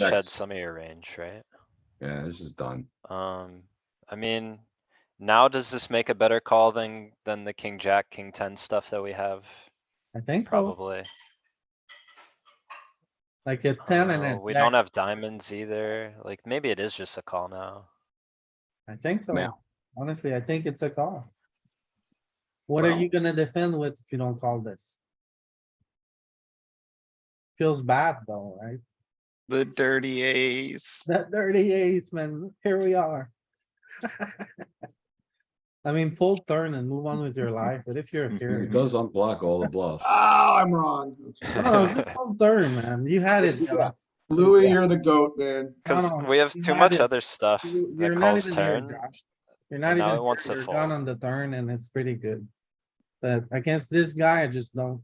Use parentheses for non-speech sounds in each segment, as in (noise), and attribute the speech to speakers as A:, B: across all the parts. A: shed
B: Checks.
A: some of your range, right?
B: Yeah, this is done.
A: Um, I mean, now does this make a better call than, than the king, jack, king ten stuff that we have?
C: I think so,
A: Probably.
C: like a
A: I don't
C: ten and
A: know,
C: a
A: Uh, We don't
C: jack,
A: have diamonds either. Like, maybe it is just a call now.
C: I think so.
B: Now.
C: Honestly, I think it's a call. What are
B: Well.
C: you gonna defend with if you don't call this? Feels bad though, right? (laughs)
D: The dirty ace.
C: That dirty ace, man, here
A: (laughs)
C: we are. I mean, fold turn and move on with your life, but if you're here.
B: It does unblock all the bluffs.
A: Ah.
E: Oh, I'm wrong.
C: Oh, just fold turn, man, you had it,
E: Yeah.
C: Josh.
E: Louis, you're the goat, man.
A: Cuz
C: no,
A: we have
C: you
A: too
C: had
A: much
C: it.
A: other stuff
C: (sighs) You-
A: that
C: You're not
A: calls
C: even here,
A: turn.
C: Josh. You're not
A: and now
C: even,
A: it wants
C: here.
A: to
C: you're down
A: fold.
C: on the turn and it's pretty good. But against this guy, I just don't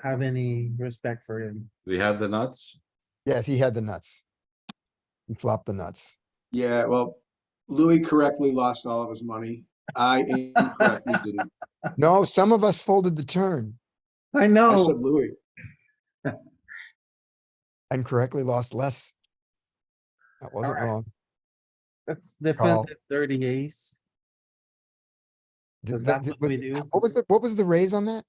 C: have any respect for him.
B: We have the nuts.
F: Yes, he had the nuts. He flopped the nuts.
E: Yeah, well, Louis correctly lost all of his money. I incorrectly didn't.
F: No, some of us folded the turn
C: I
E: I said
C: know,
E: Louis.
F: and correctly lost less. That wasn't
C: Alright.
F: wrong.
C: that's
F: Call.
C: defensive dirty ace.
F: Th-
C: Is
F: th-
C: that
F: th-
C: what we
F: was-
C: do?
F: What was the, what was the raise on that?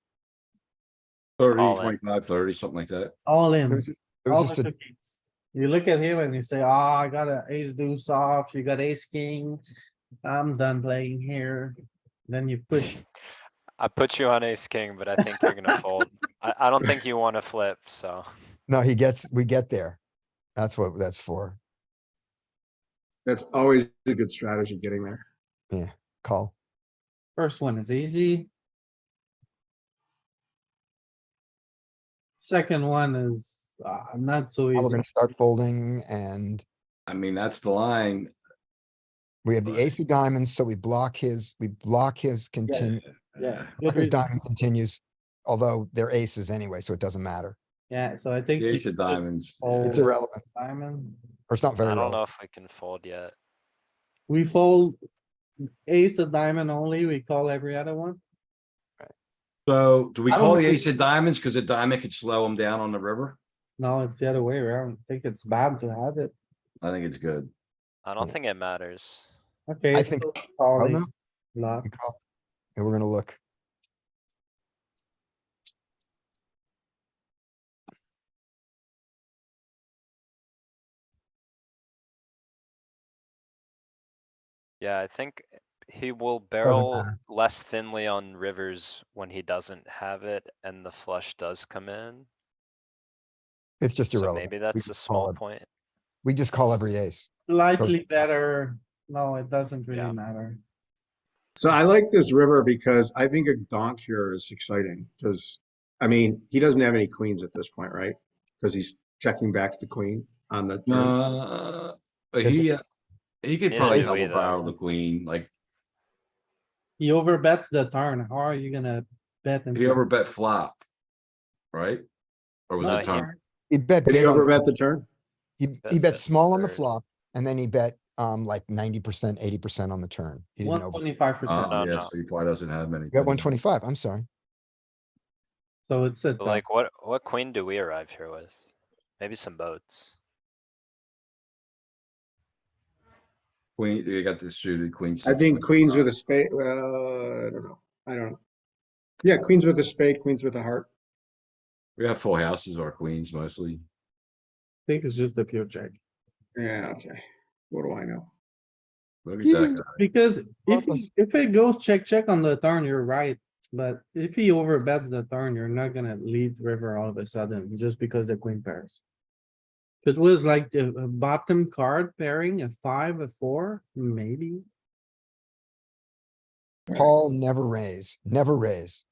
B: Thirty,
A: All in.
B: twenty-five, thirty, something like that.
C: All in.
F: It was just- it
C: all
F: was just
C: the
F: a,
C: cookies. You look at him and you say, ah, I got an ace deuce off, you got ace king, I'm done playing here. Then you push,
A: I put you on ace, king, but I think you're
C: (laughs)
A: gonna fold. I, I don't think you wanna flip, so.
F: no, he gets, we get there. That's what that's for.
E: That's always a good strategy getting there.
F: Call.
C: first one is easy. Second one is, uh, not so
F: We're
C: easy.
F: gonna start folding and
B: I mean, that's the line.
F: we have the ace of diamonds, so we block his, we block his continue. (laughs)
C: Yeah.
F: His diamond continues, although they're aces anyway, so it doesn't matter.
C: Yeah, so I think.
B: The
C: you
B: ace of
C: should
B: diamonds.
C: Oh.
F: It's irrelevant,
C: Diamond,
F: or it's not very
A: I don't
F: relevant.
A: know if we can fold yet.
C: we fold ace of diamond only, we call every other one.
B: So do we
F: I don't
B: call the
F: think-
B: ace of diamonds? Cause a diamond could slow him down on the river?
C: No, it's the other way around. I think it's bad to have it.
B: I think it's good.
A: I don't think it matters.
C: Okay.
F: I think-
C: so
F: Oh,
C: Calling,
F: no,
C: bluff.
F: we call. And we're gonna look.
A: Yeah, I think he will barrel
F: matter.
A: less thinly on rivers when he doesn't have it and the flush does come in.
F: It's just
A: So
F: irrelevant.
A: maybe
F: We
A: that's a
F: just
A: small
F: call it.
A: point.
F: We just call every ace.
C: Slightly better. No, it doesn't really
A: Yeah.
C: matter.
E: So I like this river because I think a donk here is exciting because, I mean, he doesn't have any queens at this point, right? Because he's checking back the queen on the. turn.
B: Uh, but
F: It's-
B: he, uh, he could
A: Neither
B: probably
A: do we,
B: double
A: though.
B: barrel the queen, like
C: He overbets the turn. How are you gonna bet? him?
B: he overbet flop. Right? Or was
A: No, he-
B: it turn?
F: He bet
E: Did he
F: big on-
E: overbet the turn?
F: He,
A: Bet
F: he bet
A: that
F: small on the
A: third.
F: flop and then he bet, um, like ninety percent, eighty percent on the turn. He
C: One
F: didn't over,
C: twenty-five percent.
B: Uh,
A: No,
B: yeah,
A: no.
B: so he probably doesn't have many.
F: he got one twenty-five, I'm sorry.
C: So it's a,
A: But like, what, what queen do we arrive here with? Maybe some boats.
B: Queen, you got this suited queen.
E: I
B: six,
E: think
B: six,
E: queens
B: five.
E: with a spade, well, I don't know. I don't know. Yeah, queens with a spade, queens with a heart.
B: We have full houses or queens mostly.
C: I think it's just a pure check.
E: Yeah, okay. What do I know?
B: Look at that guy.
C: Because if,
F: Purpose.
C: he- if it goes check, check on the turn, you're right. But if he overbets the turn, you're not gonna lead river all of a sudden, just because the queen pairs. If it was like the a bottom card pairing, a five, a four, maybe.
E: Right.
F: Call, never raise, never raise.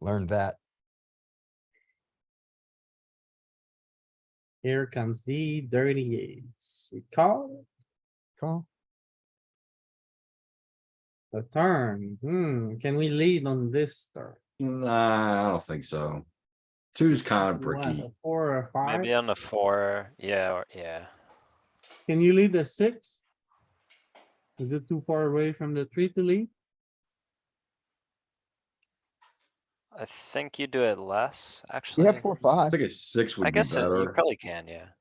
F: Learned that.
C: Here comes the dirty ace. We call
F: Call.
C: the turn. Hmm, can we lead on this turn?
B: Nah, I don't think so. Two's kind of
C: One,
B: bricky.
C: a Four or
A: Maybe
C: five?
A: on the four, yeah, or, yeah.
C: Can you lead a six? Is it too far away from the tree to lead?
A: I think you do it less, actually.
F: Yeah, four,
B: I
F: five.
B: think a six
A: I
B: would be
A: guess it- you
B: better.
A: probably can, yeah.